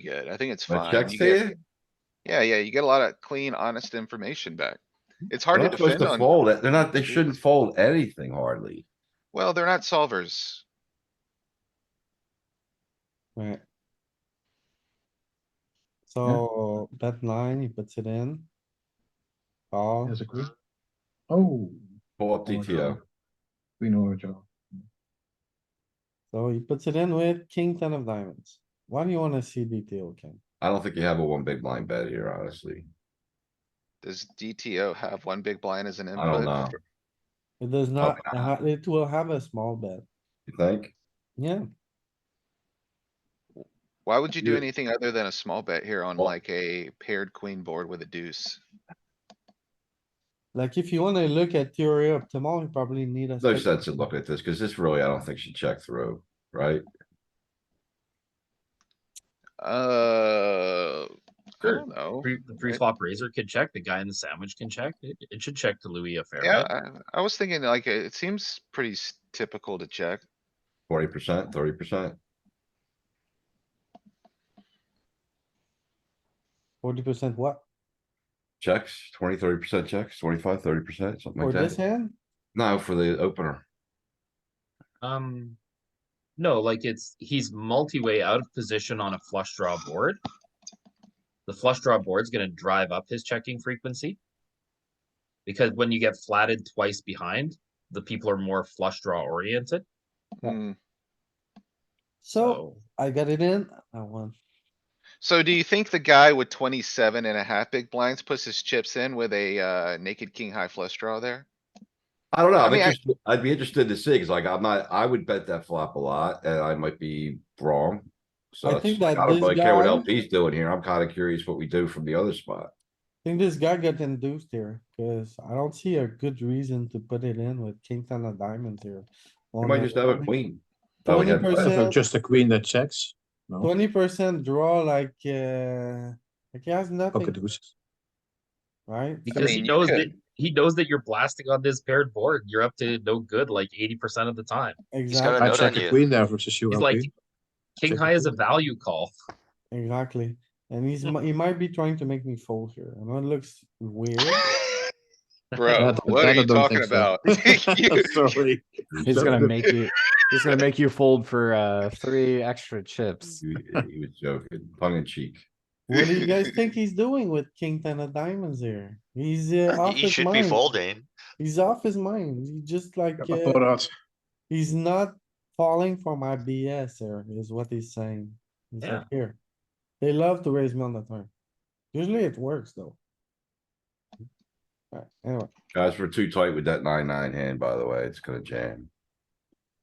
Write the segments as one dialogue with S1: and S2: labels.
S1: good. I think it's
S2: My
S1: fine.
S2: checks
S1: You
S2: to
S1: get-
S2: you?
S1: Yeah, yeah, you get a lot of clean, honest information back. It's
S2: They're
S1: hard to
S2: not supposed
S1: defend
S2: to
S1: on,
S2: fold it. They're not, they shouldn't fold anything hardly.
S1: well, they're not solvers.
S3: Right. So bet nine, he puts it in. Oh,
S4: There's a group. Oh.
S2: Pull up
S4: or a
S2: DTO.
S4: draw. Queen or a draw.
S3: so he puts it in with king ten of diamonds. Why do you wanna see DTO, Ken?
S2: I don't think you have a one big blind bet here, honestly.
S1: Does DTO have one big blind as an
S2: I don't know.
S1: input?
S3: It does not,
S2: Probably
S3: uh, it will have a small bet,
S2: You think?
S3: yeah.
S1: Why would you do
S2: You-
S1: anything other than a small bet here on
S2: Well-
S1: like a paired queen board with a deuce?
S3: Like if you wanna look at theory optimal, you probably need a.
S2: No
S3: special-
S2: sense in looking at this, cuz this really, I don't think she checked through, right?
S1: Uh, I
S5: Sure.
S1: don't know.
S5: Pre, the pre-flop razor can check, the guy in the sandwich can check, it, it should check to Louis a fair
S1: Yeah,
S5: bit.
S1: I, I was thinking like, uh, it seems pretty s- typical to check.
S2: Forty percent, thirty percent.
S3: Forty percent what?
S2: Checks, 20, 30 percent checks, 25, 30 percent, something
S3: For
S2: like
S3: this
S2: that.
S3: hand?
S2: No, for the opener.
S5: Um, no, like it's, he's multi-way out of position on a flush draw board. The flush draw board's gonna drive up his checking frequency. Because when you get flatted twice behind, the people are more flush draw oriented,
S3: Yeah.
S1: Hmm.
S3: So
S5: so.
S3: I got it in, I won.
S1: So do you think the guy with 27 and a half big blinds puts his chips in with a, uh, naked king high flush draw there?
S2: I don't know.
S1: I
S2: I'm
S1: mean, I-
S2: interested- I'd be interested to see, cuz like I'm not, I would bet that flop a lot and I might be wrong. So
S3: I
S2: it's-
S3: think that
S2: I don't
S3: this
S2: really care what
S3: guy-
S2: LP's doing here. I'm kinda curious what we do from the other spot.
S3: I think this guy got induced here, cause I don't see a good reason to put it in with king ten of diamonds here.
S6: Oh,
S2: We might just have a queen. Oh, we
S3: Twenty
S2: had-
S4: So
S3: percent,
S4: uh, just a queen that checks? No,
S3: twenty percent draw like, uh, like he has
S4: pocket
S3: nothing,
S4: deuces.
S3: right?
S5: Because
S1: mean,
S5: he
S1: you
S5: knows
S1: could-
S5: that, he knows that you're blasting on this paired board, you're up to no good like eighty percent of the time,
S3: Exactly,
S4: I
S7: note
S4: check
S7: on
S4: a
S7: you.
S4: queen there versus you.
S5: he's
S4: LP.
S5: like. King
S4: Check
S5: high
S4: it.
S5: is a value call,
S3: exactly. And he's, mi- he might be trying to make me fold here. I know it looks weird.
S1: Bro,
S4: That-
S1: what
S4: that
S1: are
S4: I
S1: you
S4: don't
S1: talking
S4: think so.
S1: about? You-
S4: Sorry.
S8: He's gonna make you, he's gonna make you fold for, uh, three extra chips.
S2: He he was joking, tongue in cheek.
S3: What do you guys think he's doing with king ten of diamonds here? He's uh, off
S7: He
S3: his
S7: should be
S3: mind.
S7: folding.
S3: He's off his mind. He just like,
S4: Got my
S3: uh,
S4: thought out.
S3: he's not falling for my BS here is what he's saying. He's like,
S5: Yeah.
S3: here. They love to raise me on the turn. Usually it works though. Alright, anyway,
S2: Guys, we're too tight with that nine, nine hand, by the way. It's gonna jam.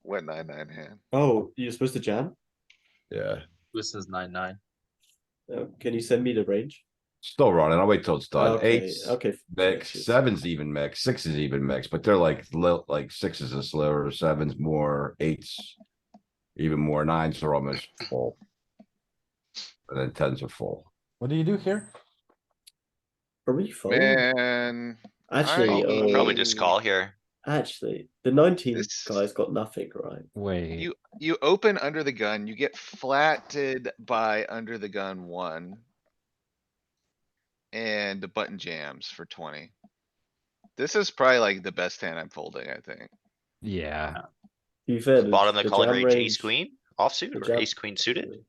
S1: What nine, nine hand?
S6: Oh, you're supposed to jam?
S2: Yeah,
S5: this is nine nine.
S6: Uh, Can you send me the range?
S2: still running. I'll wait till it's done.
S6: Okay,
S2: Eights
S6: Okay. f-
S2: mix,
S6: shit.
S2: sevens even mix, sixes even mix, but they're like, li- like sixes are slower, sevens more, eights. Even more nines are almost full. And then tens are full.
S3: what do you do here?
S6: Are we folding?
S1: Man,
S6: Actually,
S1: I-
S6: uh,
S7: Probably just call here.
S6: actually, the nineteen
S1: This-
S6: guy's got nothing, right?
S8: Wait,
S1: you open under the gun, you get flatted by under the gun one. And the button jams for twenty. This is probably like the best hand I'm folding, I think.
S8: yeah,
S6: To be fair, the-
S7: Bottom of the calling
S6: jam
S7: range, ace
S6: range-
S7: queen
S6: the
S7: offsuit or
S6: jam-
S7: ace queen suited.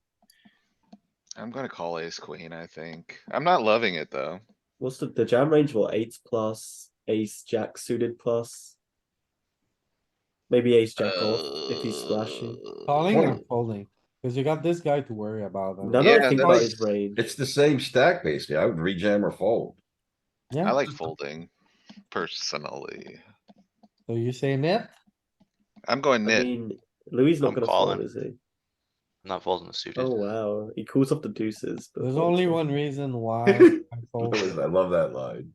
S1: I'm gonna call ace queen, I think. I'm not loving it, though.
S6: What's the, the jam range? What eights plus, ace jack suited plus? Maybe ace jack off if he's splashing.
S1: Uh,
S3: Calling or folding? Cause you got this guy to worry about.
S6: No,
S3: and-
S6: no,
S1: Yeah, that's-
S6: think about his range.
S2: It's the same stack basically. I would rejam or fold.
S1: I
S3: Yeah,
S1: like folding personally.
S3: so you say net?
S1: I'm going
S6: I
S1: nit.
S6: mean, Louis not
S7: I'm
S6: gonna fold,
S7: calling.
S6: is he?
S7: I'm not folding the suited.
S6: Oh wow, he calls off the deuces. but
S3: There's
S6: folds
S3: only
S6: it.
S3: one reason why I
S2: I
S3: fold.
S2: love that line.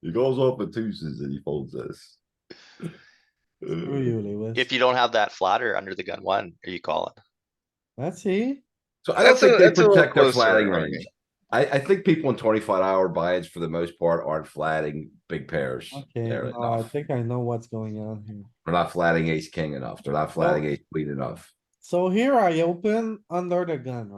S2: He goes off with twos and he folds this.
S3: Screw you, Lewis.
S7: If you don't have that flatter under the gun one, are you calling?
S3: Let's see.
S2: So I don't
S1: That's a-
S2: think they
S1: that's a little
S2: protect their
S1: closer,
S2: flatting
S1: Ernie.
S2: range. I, I think people in twenty-five hour buy-ins for the most part aren't flatting big pairs.
S3: Okay,
S2: They're
S3: no, I
S2: enough.
S3: think I know what's going on here.
S2: They're not flatting ace king enough. They're not flatting ace queen enough.
S3: So here I open under the gun,